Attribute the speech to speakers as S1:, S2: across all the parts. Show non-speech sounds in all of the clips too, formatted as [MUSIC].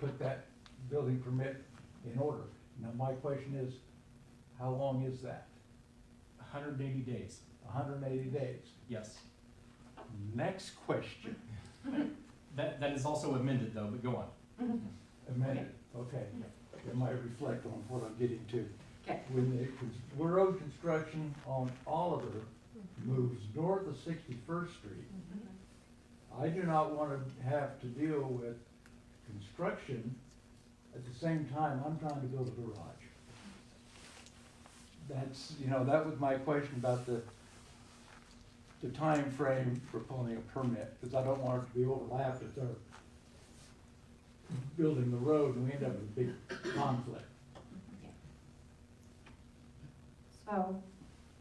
S1: put that building permit in order. Now, my question is, how long is that?
S2: hundred and eighty days,
S1: hundred and eighty days.
S2: yes.
S1: Next question,
S2: That, that is also amended though, but go on.
S1: amended, okay. It might reflect on what I'm getting to.
S3: Okay.
S1: When the cons- road construction on Oliver moves north of Sixty-first Street, I do not want to have to deal with construction at the same time I'm trying to build a garage. That's, you know, that was my question about the, the time frame for pulling a permit, because I don't want it to be overlapped if they're building the road and we end up with a big conflict.
S3: So,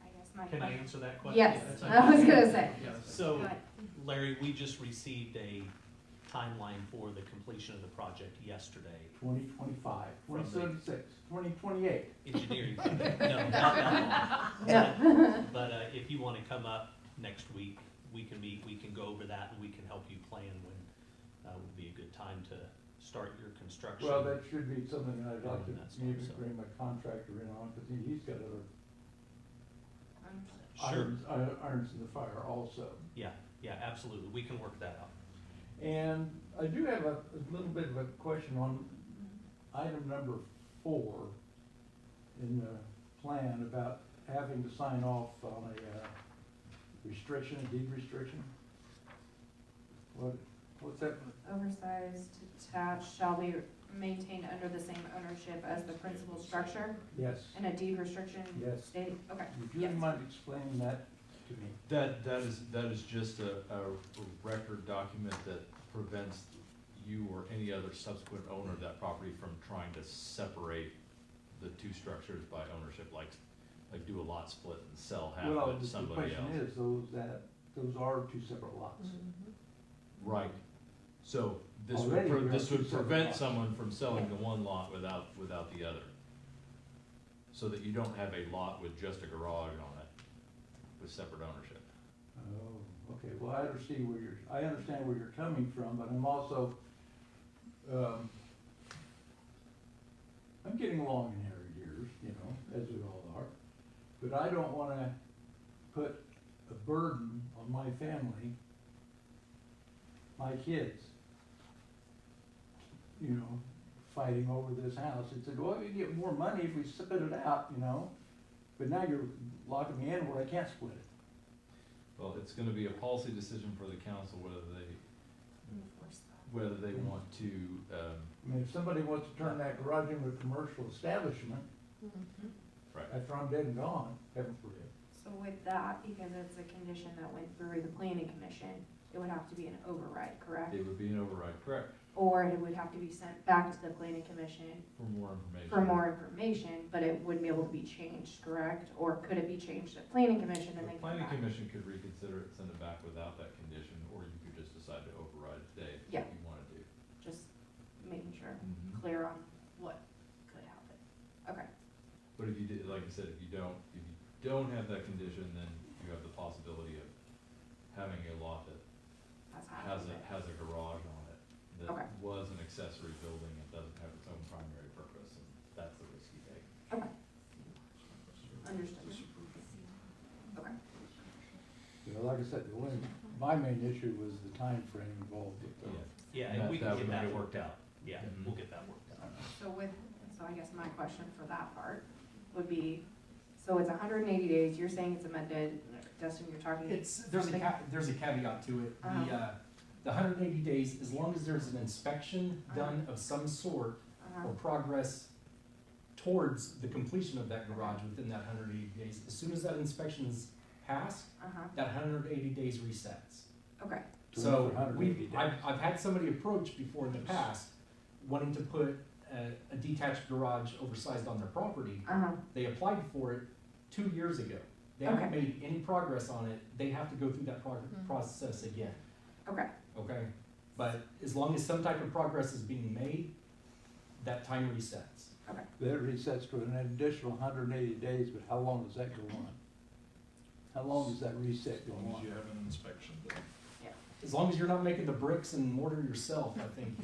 S3: I guess my.
S4: Can I answer that question?
S3: Yes,
S4: That's okay.
S3: I was gonna say.
S4: Yeah,
S3: Go
S4: so
S3: ahead.
S4: Larry, we just received a timeline for the completion of the project yesterday.
S1: 2025,
S4: From the-
S1: 2036, 2028.
S3: [LAUGHS]
S4: Engineering, project. no, not that
S3: Yeah.
S4: long. But uh, if you want to come up next week, we can meet, we can go over that, and we can help you plan when uh, would be a good time to start your construction.
S1: Well, that should be something that I'd like
S4: Yeah, that's
S1: to maybe
S4: awesome.
S1: bring my contractor in on, because he's got other
S4: Sure,
S1: irons, ir- irons in the fire also.
S4: yeah, yeah, absolutely, we can work that out.
S1: And I do have a, a little bit of a question on item number four in the plan about having to sign off on a uh, restriction, deed restriction. What, what's that?
S3: Oversized attached shall be maintained under the same ownership as the principal structure
S1: Yes,
S3: and a deed restriction
S1: Yes.
S3: stating, okay,
S1: would you
S3: Yes.
S1: mind explaining that to me?
S5: That, that is, that is just a, a record document that prevents you or any other subsequent owner of that property from trying to separate the two structures by ownership, like, like do a lot split and sell half
S1: Well,
S5: of it
S1: the-
S5: to
S1: the
S5: somebody
S1: question
S5: else.
S1: is, those that, those are two separate lots.
S5: Right, so this
S1: Already
S5: would,
S1: we
S5: pre-
S1: are
S5: this
S1: two
S5: would
S1: separate
S5: prevent
S1: lots.
S5: someone from selling the one lot without, without the other. So that you don't have a lot with just a garage on it, with separate ownership.
S1: Oh, okay, well, I understand where you're, I understand where you're coming from, but I'm also, um, I'm getting along in our years, you know, as we all are, but I don't wanna put a burden on my family, my kids, you know, fighting over this house. It's like, well, we get more money if we split it out, you know, but now you're locking me in where I can't split it.
S5: Well, it's gonna be a policy decision for the council whether they whether they want to, um,
S1: I mean, if somebody wants to turn that garage into a commercial establishment
S5: right,
S1: after I'm dead and gone, heaven forbid.
S3: so with that, because it's a condition that went through the planning commission, it would have to be an override, correct?
S5: it would be an override, correct,
S3: Or it would have to be sent back to the planning commission
S5: for more information.
S3: for more information, but it wouldn't be able to be changed, correct? Or could it be changed at planning commission and
S5: The
S3: then come
S5: planning
S3: back?
S5: commission could reconsider it, send it back without that condition, or you could just decide to override it today if
S3: Yeah.
S5: you Mm-hmm. wanna do.
S3: Just making sure, I'm clear on what could happen. Okay,
S5: But if you did, like I said, if you don't, if you don't have that condition, then you have the possibility of having a lot that
S3: that's
S5: has
S3: happening.
S5: a, has a garage on it
S3: Okay.
S5: that was an accessory building and doesn't have its own primary purpose, and that's the risk you take.
S3: Understood. Okay,
S1: You know, like I said, the one, my main issue was the time frame involved with the.
S4: Yeah,
S5: That-
S4: and we
S5: that
S4: can
S5: would
S4: get
S5: be
S4: that
S5: good.
S4: worked out. Yeah,
S5: Mhm.
S4: we'll get that worked
S1: uh,
S4: out.
S3: so with, so I guess my question for that part would be, so it's hundred and eighty days, you're saying it's amended, Dustin, you're talking.
S2: It's, there's a ca- there's a caveat to it, the, uh, the hundred and eighty days, as long as there's an inspection done of some sort
S3: Uh-huh.
S2: or progress towards the completion of that garage within that hundred and eighty days, as soon as that inspection is passed,
S3: Uh-huh,
S2: that hundred and eighty days resets.
S3: okay,
S1: To
S2: So
S1: another 180
S2: we,
S1: days.
S2: I've, I've had somebody approach before in the past, wanting to put a, a detached garage oversized on their property.
S3: uh-huh,
S2: They applied for it two years ago. They haven't made any progress on it. They have to go through that prog- process again,
S3: okay,
S2: okay? But as long as some type of progress is being made, that time resets.
S1: That resets to an additional hundred and eighty days, but how long does that go on? How long does that reset go on?
S6: you have an inspection done.
S2: As long as you're not making the bricks and mortar yourself, I think